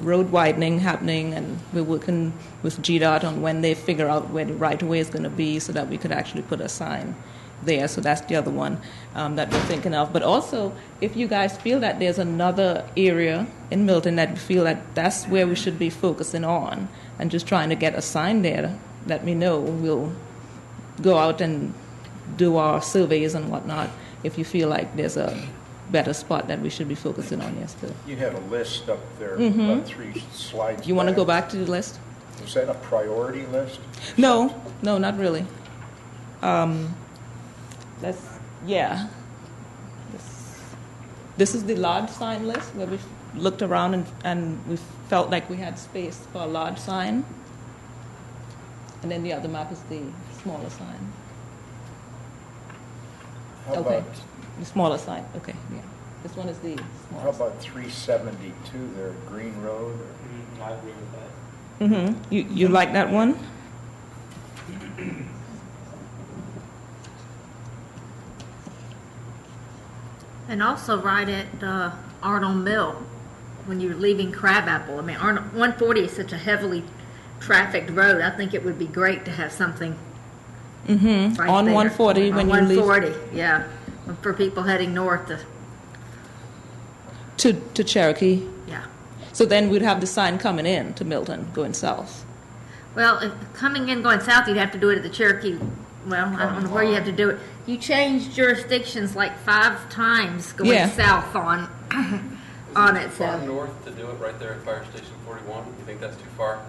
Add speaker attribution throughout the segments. Speaker 1: road widening happening, and we're working with GDOT on when they figure out where the right of way is going to be so that we could actually put a sign there. So that's the other one um, that we're thinking of. But also, if you guys feel that there's another area in Milton that you feel that that's where we should be focusing on and just trying to get a sign there, let me know. We'll go out and do our surveys and whatnot if you feel like there's a better spot that we should be focusing on, yes, too.
Speaker 2: You had a list up there, about three slides.
Speaker 1: Mm-hmm. You want to go back to the list?
Speaker 2: Was that a priority list?
Speaker 1: No, no, not really. Um, let's, yeah. This, this is the large sign list where we've looked around and, and we felt like we had space for a large sign. And then the other map is the smaller sign.
Speaker 2: How
Speaker 1: okay.
Speaker 2: about,
Speaker 1: The smaller sign, okay, yeah. This one is the
Speaker 2: how
Speaker 1: smaller.
Speaker 2: about 372 there, Green Road? or-
Speaker 3: Mm, I agree with that.
Speaker 1: Mm-hmm. You, you like that one?
Speaker 4: And also right at uh, Arnold Mill, when you're leaving Crabapple. I mean, Arnold, 140 is such a heavily trafficked road. I think it would be great to have something.
Speaker 1: Mm-hmm.
Speaker 4: right
Speaker 1: On
Speaker 4: there.
Speaker 1: 140
Speaker 4: On
Speaker 1: when you leave.
Speaker 4: 140, yeah, for people heading north. To,
Speaker 1: To, to Cherokee.
Speaker 4: yeah.
Speaker 1: So then we'd have the sign coming in to Milton, going south.
Speaker 4: Well, if coming in going south, you'd have to do it at the Cherokee. Well, I don't know where you have to do it. You changed jurisdictions like five times going
Speaker 1: Yeah.
Speaker 4: south on on it.
Speaker 5: Too
Speaker 4: So.
Speaker 5: Far north to do it right there at Fire Station 41? You think that's too far?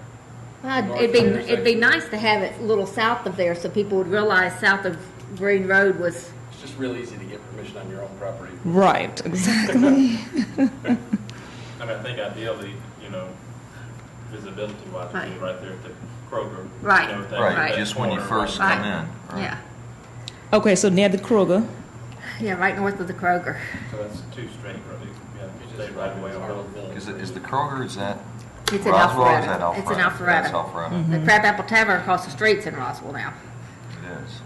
Speaker 4: Well,
Speaker 5: North
Speaker 4: it'd be,
Speaker 5: of there,
Speaker 4: it'd be
Speaker 5: so-
Speaker 4: nice to have it a little south of there so people would realize south of Green Road was,
Speaker 5: It's just real easy to get permission on your own property.
Speaker 1: Right, exactly.
Speaker 3: I mean, I think ideally, you know, visibility wise, it'd be
Speaker 4: Right.
Speaker 3: right there at the Kroger. you
Speaker 4: Right.
Speaker 3: know, at that-
Speaker 6: Right,
Speaker 3: that
Speaker 6: just when you
Speaker 3: corner,
Speaker 6: first
Speaker 3: right.
Speaker 4: Right.
Speaker 6: come in.
Speaker 4: yeah,
Speaker 1: okay, so near the Kroger.
Speaker 4: yeah, right north of the Kroger.
Speaker 3: So that's two straight, right?
Speaker 5: You
Speaker 3: You
Speaker 5: just
Speaker 3: stay right away on Arnold.
Speaker 6: Is it, is the Kroger, is that
Speaker 4: It's in
Speaker 6: Roswell or is that
Speaker 4: Alpharetta.
Speaker 6: Alpharetta?
Speaker 4: It's in
Speaker 6: That's
Speaker 4: Alpharetta. Mm.
Speaker 6: Alpharetta,
Speaker 4: The Crab Apple Tavern across the street's in Roswell now.
Speaker 6: it is.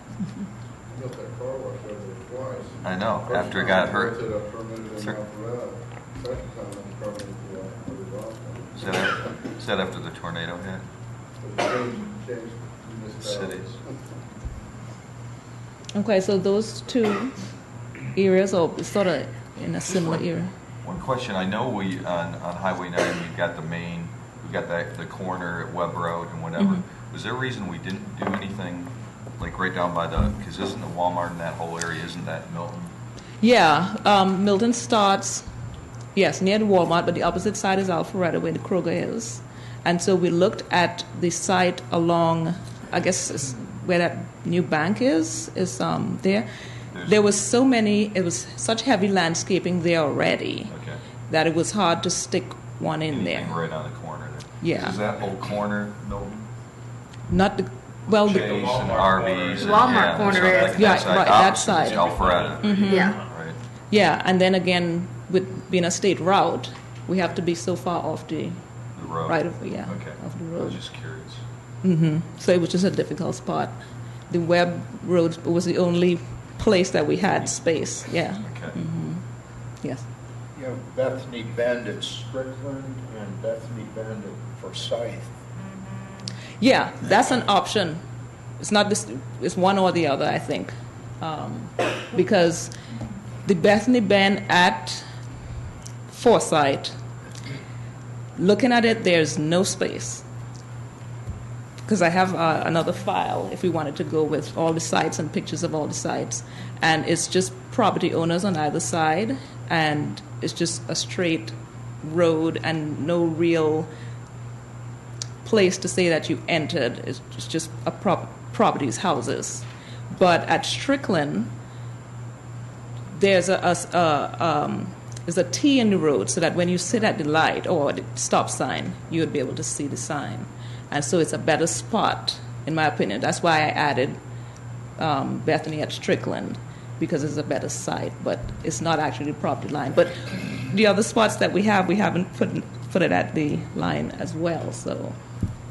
Speaker 7: Built that car wash over there twice.
Speaker 6: I know,
Speaker 7: First
Speaker 6: Uh, after it
Speaker 7: time
Speaker 6: got
Speaker 7: I
Speaker 6: hurt.
Speaker 7: built it, I permitted it in
Speaker 6: Sir.
Speaker 7: Alpharetta. Second time I permitted it in Alpharetta.
Speaker 6: Is that, af- is that after the tornado hit?
Speaker 7: But change- change municipalities.
Speaker 6: Cities.
Speaker 1: Okay, so those two areas are sort of in a similar area.
Speaker 6: One question, I know we, on, on Highway 9, you've got the main, we've got that, the corner at Webb Road and whatever.
Speaker 4: Mm-hmm.
Speaker 6: Was there a reason we didn't do anything, like right down by the, because isn't the Walmart in that whole area, isn't that Milton?
Speaker 1: Yeah, um, Milton starts, yes, near the Walmart, but the opposite side is Alpharetta, where the Kroger is. And so we looked at the site along, I guess, it's where that new bank is, is um, there. There was so many, it was such heavy landscaping there already
Speaker 6: Okay.
Speaker 1: that it was hard to stick one in
Speaker 6: Anything
Speaker 1: there.
Speaker 6: right on the corner there?
Speaker 1: Yeah.
Speaker 6: Is that whole corner Milton?
Speaker 1: Not the, well,
Speaker 6: Chase
Speaker 1: Oh, the,
Speaker 6: and
Speaker 3: Walmart
Speaker 6: Arby's. and-
Speaker 4: Walmart
Speaker 6: yeah,
Speaker 4: corner
Speaker 6: so
Speaker 4: is-
Speaker 6: like
Speaker 1: Yeah,
Speaker 6: that side.
Speaker 1: right, that
Speaker 6: Opposite is
Speaker 1: side.
Speaker 6: Alpharetta,
Speaker 4: Yeah,
Speaker 6: right?
Speaker 1: yeah, and then again, with being a state route, we have to be so far off the
Speaker 6: The road.
Speaker 1: right of, yeah,
Speaker 6: Okay.
Speaker 1: of the
Speaker 6: I was
Speaker 1: road.
Speaker 6: just curious.
Speaker 1: hmm So it was just a difficult spot. The web road was the only place that we had space. Yeah.
Speaker 6: Okay.
Speaker 1: Mm-hmm. Yes.
Speaker 2: You know, Bethany Bend at Strickland and Bethany Bend at Forsyth.
Speaker 1: Yeah, that's an option. It's not this. It's one or the other, I think, um, because the Bethany Bend at Foresight. Looking at it, there's no space. Because I have uh, another file if we wanted to go with all the sites and pictures of all the sites. And it's just property owners on either side, and it's just a straight road and no real place to say that you entered. It's just- it's just a prop- properties, houses. But at Strickland, there's a, a s- a, um, there's a T in the road so that when you sit at the light or the stop sign, you would be able to see the sign. And so it's a better spot, in my opinion. That's why I added um, Bethany at Strickland because it's a better site, but it's not actually the property line. But the other spots that we have, we haven't put, put it at the line as well, so.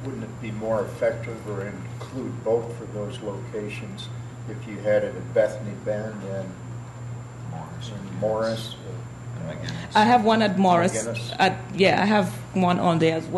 Speaker 2: Wouldn't it be more effective or include both for those locations if you had it at Bethany Bend and
Speaker 6: Morris.
Speaker 2: in Morris? or
Speaker 6: I guess.
Speaker 1: I have one at Morris.
Speaker 2: Guinness.
Speaker 1: At, yeah, I have one on there as well.